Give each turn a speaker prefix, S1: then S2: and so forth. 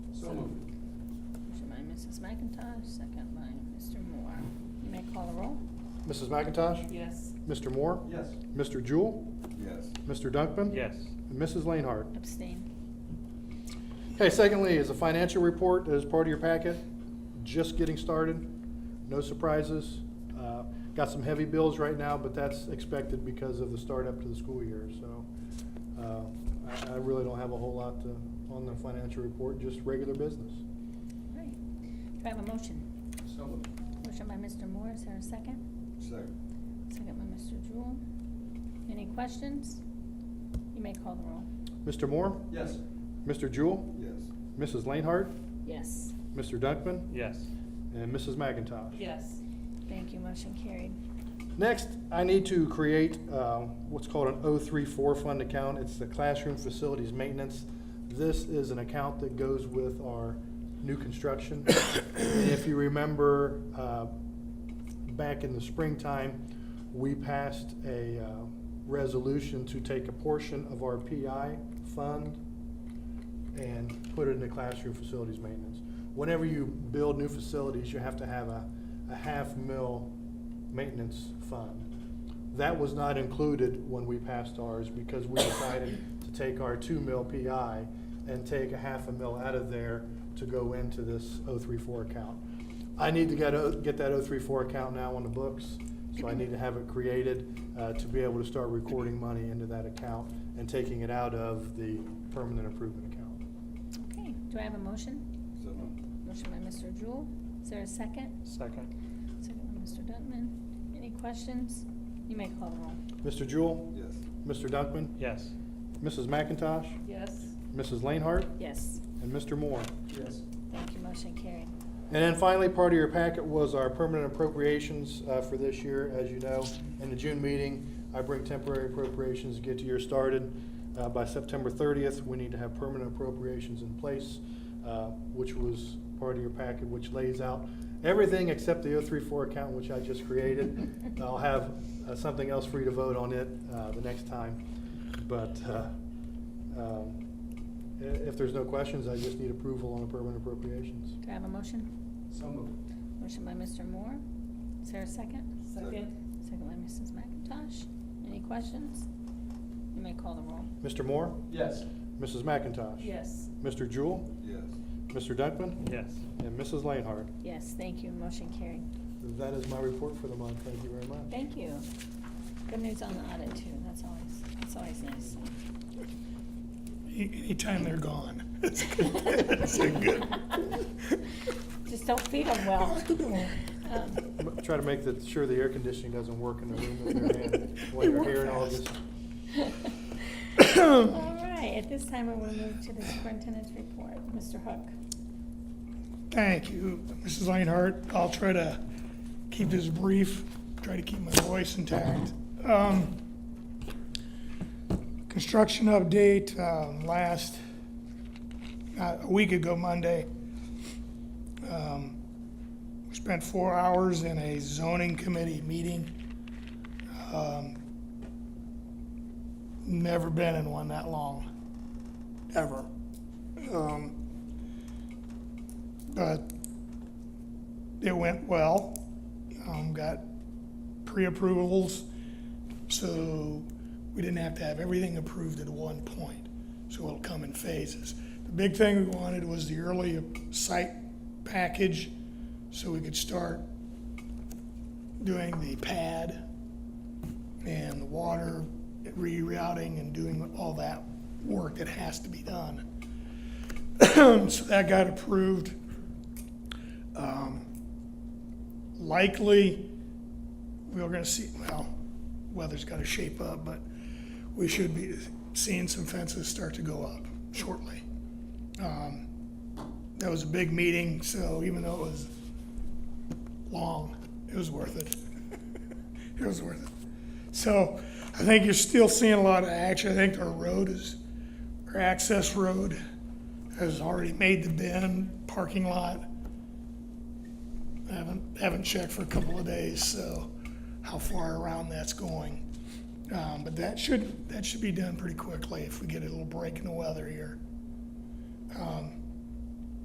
S1: So moved.
S2: Motion by Mrs. McIntosh, second by Mr. Moore. You may call the roll.
S3: Mrs. McIntosh?
S4: Yes.
S3: Mr. Moore?
S1: Yes.
S3: Mr. Jewell?
S1: Yes.
S3: Mr. Dunkman?
S5: Yes.
S3: And Mrs. Lainhart?
S2: Abstain.
S3: Okay, secondly, is a financial report as part of your packet, just getting started, no surprises. Uh, Got some heavy bills right now, but that's expected because of the start up to the school year, so. uh, I I really don't have a whole lot to, on the financial report, just regular business.
S2: All right. Do I have a motion?
S1: So moved.
S2: Motion by Mr. Moore, is there a second?
S1: Second.
S2: Second by Mr. Jewell. Any questions? You may call the roll.
S3: Mr. Moore?
S1: Yes.
S3: Mr. Jewell?
S1: Yes.
S3: Mrs. Lainhart?
S2: Yes.
S3: Mr. Dunkman?
S5: Yes.
S3: And Mrs. McIntosh?
S4: Yes.
S2: Thank you, motion carried.
S3: Next, I need to create uh, what's called an 034 fund account. It's the classroom facilities maintenance. This is an account that goes with our new construction. And If you remember, uh, back in the springtime, we passed a uh, resolution to take a portion of our PI fund and put it into classroom facilities maintenance. Whenever you build new facilities, you have to have a, a half mil maintenance fund. That was not included when we passed ours because we decided to take our two mil PI and take a half a mil out of there to go into this 034 account. I need to get, o- get that 034 account now on the books, so I need to have it created, uh, to be able to start recording money into that account and taking it out of the permanent improvement account.
S2: Okay, do I have a motion?
S1: So moved.
S2: Motion by Mr. Jewell, is there a second?
S5: Second.
S2: Second by Mr. Dunkman. Any questions? You may call the roll.
S3: Mr. Jewell,
S1: Yes.
S3: Mr. Dunkman,
S5: Yes.
S3: Mrs. McIntosh,
S4: Yes.
S3: Mrs. Lainhart,
S2: Yes.
S3: and Mr. Moore.
S1: Yes.
S2: Thank you, motion carried.
S3: And then finally, part of your packet was our permanent appropriations uh, for this year. As you know, in the June meeting, I bring temporary appropriations to get the year started. Uh, By September 30th, we need to have permanent appropriations in place, uh, which was part of your packet, which lays out everything except the 034 account, which I just created. I'll have uh, something else for you to vote on it uh, the next time. But uh, um, i- if there's no questions, I just need approval on the permanent appropriations.
S2: Do I have a motion?
S1: So moved.
S2: Motion by Mr. Moore, is there a second?
S4: Second.
S2: Second by Mrs. McIntosh. Any questions? You may call the roll.
S3: Mr. Moore?
S1: Yes.
S3: Mrs. McIntosh?
S4: Yes.
S3: Mr. Jewell?
S1: Yes.
S3: Mr. Dunkman?
S5: Yes.
S3: And Mrs. Lainhart.
S2: Yes, thank you, motion carried.
S3: That is my report for the month. Thank you very much.
S2: Thank you. Good news on the audit too, that's always, that's always nice.
S6: Anytime they're gone. It's good. It's a good.
S2: Just don't feed them Oh, well.
S6: No.
S2: Um,
S3: M- Try to make the- sure the air conditioning doesn't work in the room that they're in while you're here in August.
S2: All right, at this time, we will move to the superintendent's report. Mr. Hook.
S6: Thank you, Mrs. Lainhart. I'll try to keep this brief, try to keep my voice intact. Um, Construction update, um, last, uh, a week ago Monday. Um, We Spent four hours in a zoning committee meeting. Um, Never been in one that long, ever. Um, but it went well. Um, got pre-approvals, so we didn't have to have everything approved at one point. So it'll come in phases. The big thing we wanted was the early site package, so we could start doing the pad and the water rerouting and doing all that work that has to be done. So that got approved Um, likely we're going to see, well, weather's got to shape up, but we should be seeing some fences start to go up shortly. Um, That was a big meeting, so even though it was long, it was worth it. It was worth it. So I think you're still seeing a lot of action. I think our road is, our access road has already made the bend, parking lot. I haven't, haven't checked for a couple of days, so how far around that's going. Um, but that should, that should be done pretty quickly if we get a little break in the weather here. Um,